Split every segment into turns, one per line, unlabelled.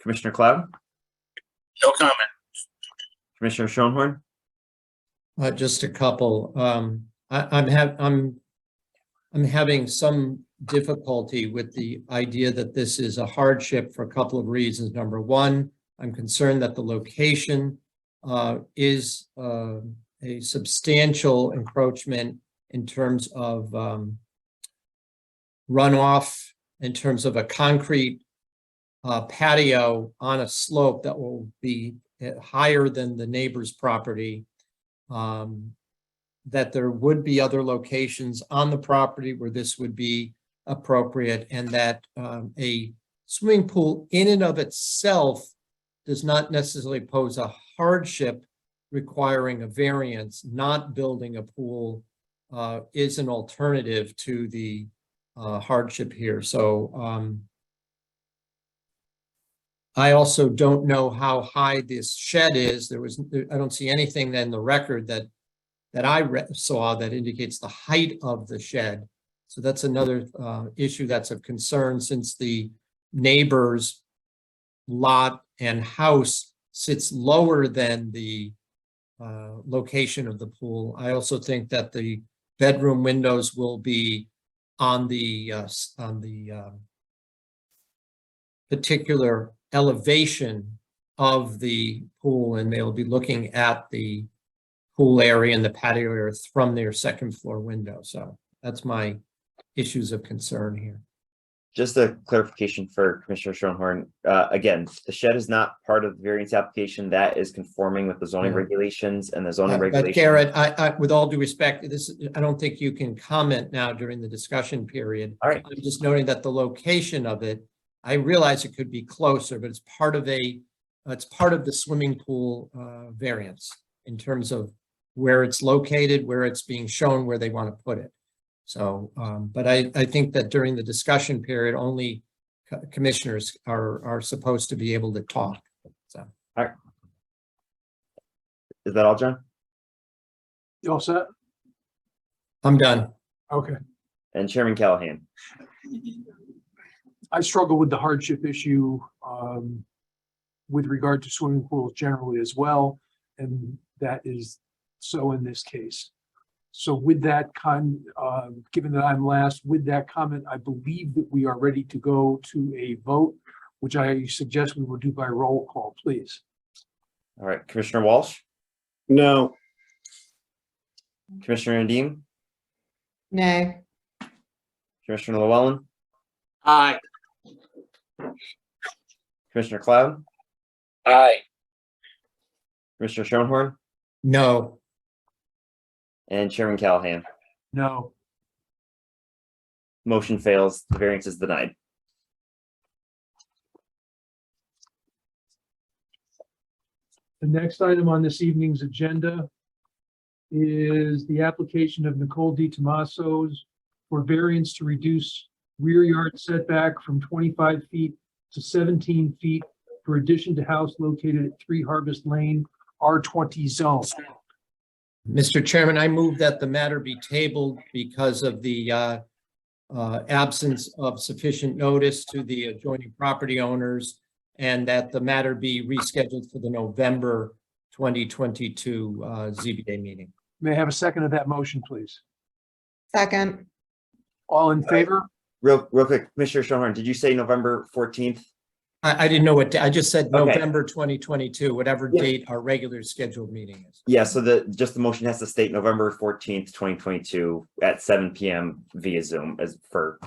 Commissioner Cloud,
No comment.
Commissioner Schoenhorn,
Uh, just a couple. Um, I, I'm hav- I'm, I'm having some difficulty with the idea that this is a hardship for a couple of reasons. Number one, I'm concerned that the location uh, is uh, a substantial encroachment in terms of um, runoff, in terms of a concrete uh, patio on a slope that will be uh, higher than the neighbor's property um, that there would be other locations on the property where this would be appropriate and that, um, a swimming pool in and of itself does not necessarily pose a hardship requiring a variance, not building a pool, uh, is an alternative to the, uh, hardship here. So, um, I also don't know how high this shed is. There was, I don't see anything in the record that, that I re- saw that indicates the height of the shed. So that's another, uh, issue that's of concern since the neighbor's lot and house sits lower than the, uh, location of the pool. I also think that the bedroom windows will be on the, uh, s- on the, um, particular elevation of the pool, and they'll be looking at the pool area and the patio area from their second floor window. So that's my issues of concern here.
just a clarification for Commissioner Schoenhorn. Uh, again, the shed is not part of the variance application. That is conforming with the zoning
Mhm.
regulations and the zoning
But but
regulations.
Garrett, Uh, I, I, with all due respect, this, I don't think you can comment now during the discussion period.
All right,
I'm just noting that the location of it, I realize it could be closer, but it's part of a, it's part of the swimming pool uh, variance in terms of where it's located, where it's being shown, where they want to put it. So, um, but I, I think that during the discussion period, only co- commissioners are, are supposed to be able to talk.
is that all, John?
You all set?
I'm done.
Okay.
And Chairman Callahan,
I struggle with the hardship issue um with regard to swimming pools generally as well, and that is so in this case. So with that con, uh, given that I'm last, with that comment, I believe that we are ready to go to a vote, which I suggest we will do by roll call, please.
all right, Commissioner Walsh,
No,
Commissioner Nadeem,
No,
Commissioner Llewellyn,
Aye.
Commissioner Cloud,
Aye.
Commissioner Schoenhorn,
No,
and Chairman Callahan.
No,
Motion fails, the variance is denied.
the next item on this evening's agenda is the application of Nicole D. Tomaso's for variance to reduce rear yard setback from twenty-five feet to seventeen feet for addition to house located at Three Harvest Lane, R twenty zone.
Mr. Chairman, I move that the matter be tabled because of the uh, uh, absence of sufficient notice to the adjoining property owners and that the matter be rescheduled for the November 2022 uh, ZBA meeting.
May I have a second of that motion, please?
second,
All in favor?
Real, real quick, Commissioner Schoenhorn, did you say November fourteenth?
I I didn't know what, da- I just said
Okay.
November 2022, whatever
Yeah.
date our regular scheduled meeting is.
Yeah, so the, just the motion has to state November fourteenth, twenty twenty-two at seven PM via Zoom as for,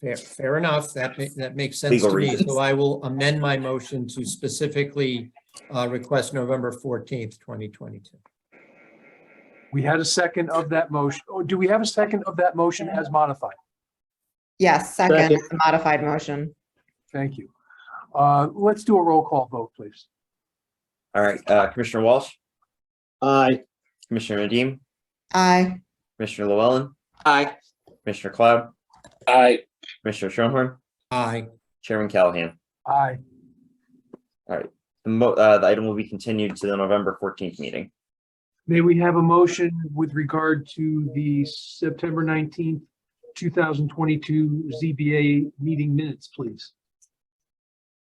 Fair, fair enough. That ma- that makes sense
Legal
to me.
reasons.
So I will amend my motion to specifically uh, request November 14th, 2022.
We had a second of that motion. Oh, do we have a second of that motion as modified?
yes, second,
Second.
is the modified motion.
Thank you. Uh, let's do a roll call vote, please.
all right, uh, Commissioner Walsh,
I,
Commissioner Nadeem,
Aye,
Commissioner Llewellyn,
Aye.
Commissioner Cloud,
Aye.
Commissioner Schoenhorn,
Aye.
Chairman Callahan.
Aye.
The mo, uh, the item will be continued to the November fourteenth meeting.
May we have a motion with regard to the September nineteenth, two thousand twenty-two ZBA meeting minutes, please?